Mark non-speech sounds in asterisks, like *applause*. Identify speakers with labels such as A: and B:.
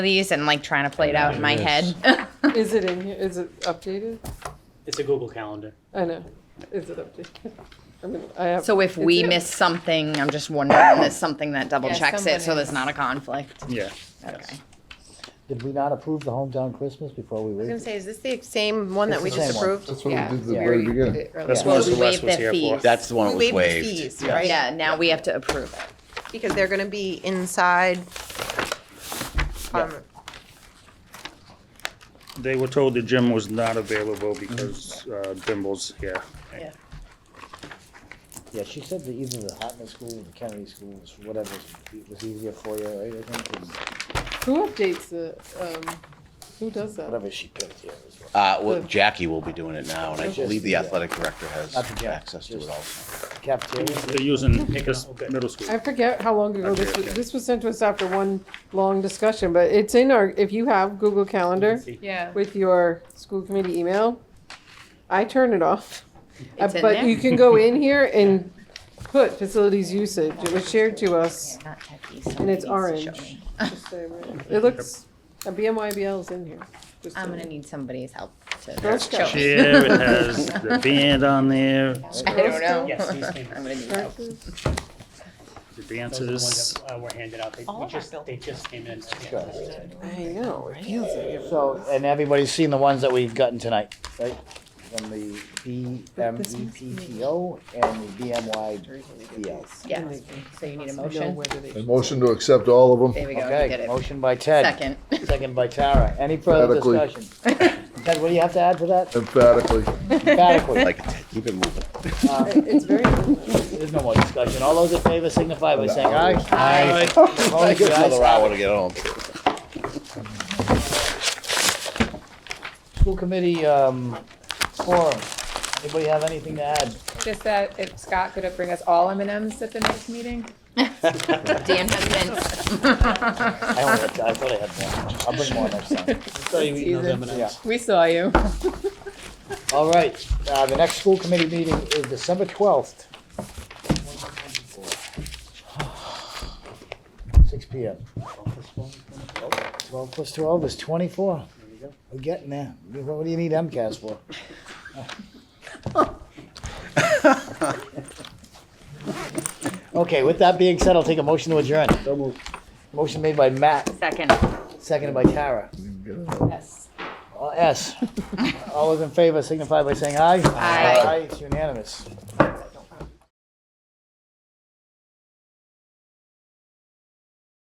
A: these and like trying to play it out in my
B: Yes.
A: head.
C: Is it in here? Is it updated?
D: It's a Google Calendar.
C: I know. Is it updated? I mean, I
A: *laughs*
C: have.
A: So if we
C: It's-
A: miss something, I'm just wondering, there's something that double
E: Yeah,
A: checks it, so
E: somebody-
A: there's not a conflict.
B: Yeah.
A: Okay.
F: Did we not approve the hometown Christmas before we
E: I was gonna
F: waived? it?
E: say, is this the same one that
F: It's
E: we
F: the
E: just
F: same one.
E: approved?
G: That's what we
E: Yeah,
G: did at the
E: we
G: very
E: already
G: beginning.
E: did it earlier.
B: That's
A: Yeah.
B: what
A: We
B: Celeste
A: waived
B: was
A: the
B: here for.
A: fees.
H: That's the one that
E: We
H: was
E: waived the
H: waived.
E: fees, right?
A: Yeah, now we have to approve it.
E: Because they're gonna be inside. um,
B: They were told the gym was not available because uh, Dimble's here.
F: Yeah, she said that either the Hotman School or the Kennedy School was whatever was- was easier for you, right? I think, and
C: Who updates the, um, who does that?
F: whatever she picked, yeah. was what-
H: Uh, well, Jackie will be doing it now, and I
F: Just-
H: believe the
F: yeah.
H: athletic director has
F: Not the gym,
H: access to it
F: just-
H: also.
F: Cafeteria,
B: They're using this middle
C: I
B: school.
C: forget how long ago this
B: Okay,
C: was,
B: okay.
C: this was sent to us after one long discussion, but it's in our, if you have Google Calendar
D: See?
E: Yeah.
C: with your school committee email, I turn it off. Uh,
A: It's in
C: But
A: there?
C: you can go in here and put facilities usage. It was shared to us.
A: Not techie, so
C: And
A: somebody needs
C: it's
A: to show
C: orange.
A: me.
C: Just so everyone- It looks, a BMYBL is in here. just so
A: I'm gonna need somebody's help to
C: Girl
A: show
C: Scout.
A: me.
B: Chair, it has the band on there,
A: *laughs* I don't *laughs*
D: Yes,
A: know.
D: these came,
A: I'm gonna need help.
C: Versus-
B: the
D: those are the ones
B: dances.
D: that uh, were handed out. They,
A: All
D: we
A: of our
D: just, they just came in.
F: Good.
C: I know, it feels like it.
F: so, and everybody's seen the ones that we've gotten tonight, right? From the E BMEPTO and the BMYBL.
A: Yeah, so you need a
C: I know
A: motion?
C: whether they-
G: A motion to accept all of them.
A: There we go, you
F: Okay,
A: did it.
F: motion by Ted.
A: Second.
F: Second by Tara. Any further
G: Emphatically.
F: discussion? Ted, what do you have to add to that?
G: Emphatically.
F: Emphatically.
H: Like, keep it moving.
F: Um,
C: It's very.
F: There's no more discussion. All those in favor signify by saying aye.
A: Aye.
F: Opposed,
H: Give
F: the
H: us
F: ayes
H: another
F: have
H: hour
F: it.
H: to get home.
F: School committee, um, forum. Anybody have anything to add?
I: Just that if Scott could bring us all M and M's at the next meeting.
A: Dan has *laughs* been,
F: I only had, I thought I had one. I'll bring more next time. Yeah.
I: We saw you.
F: All right, uh, the next school committee meeting is December twelfth. Six P M. Twelve plus twelve is twenty-four. We're getting there. What do you need MCAS for? *laughs* Okay, with that being said, I'll take a motion to adjourn. Motion made by Matt,
A: second.
F: seconded by Tara.
I: Yes.
F: All S. All those in favor signify by saying aye.
A: Aye.
F: It's unanimous.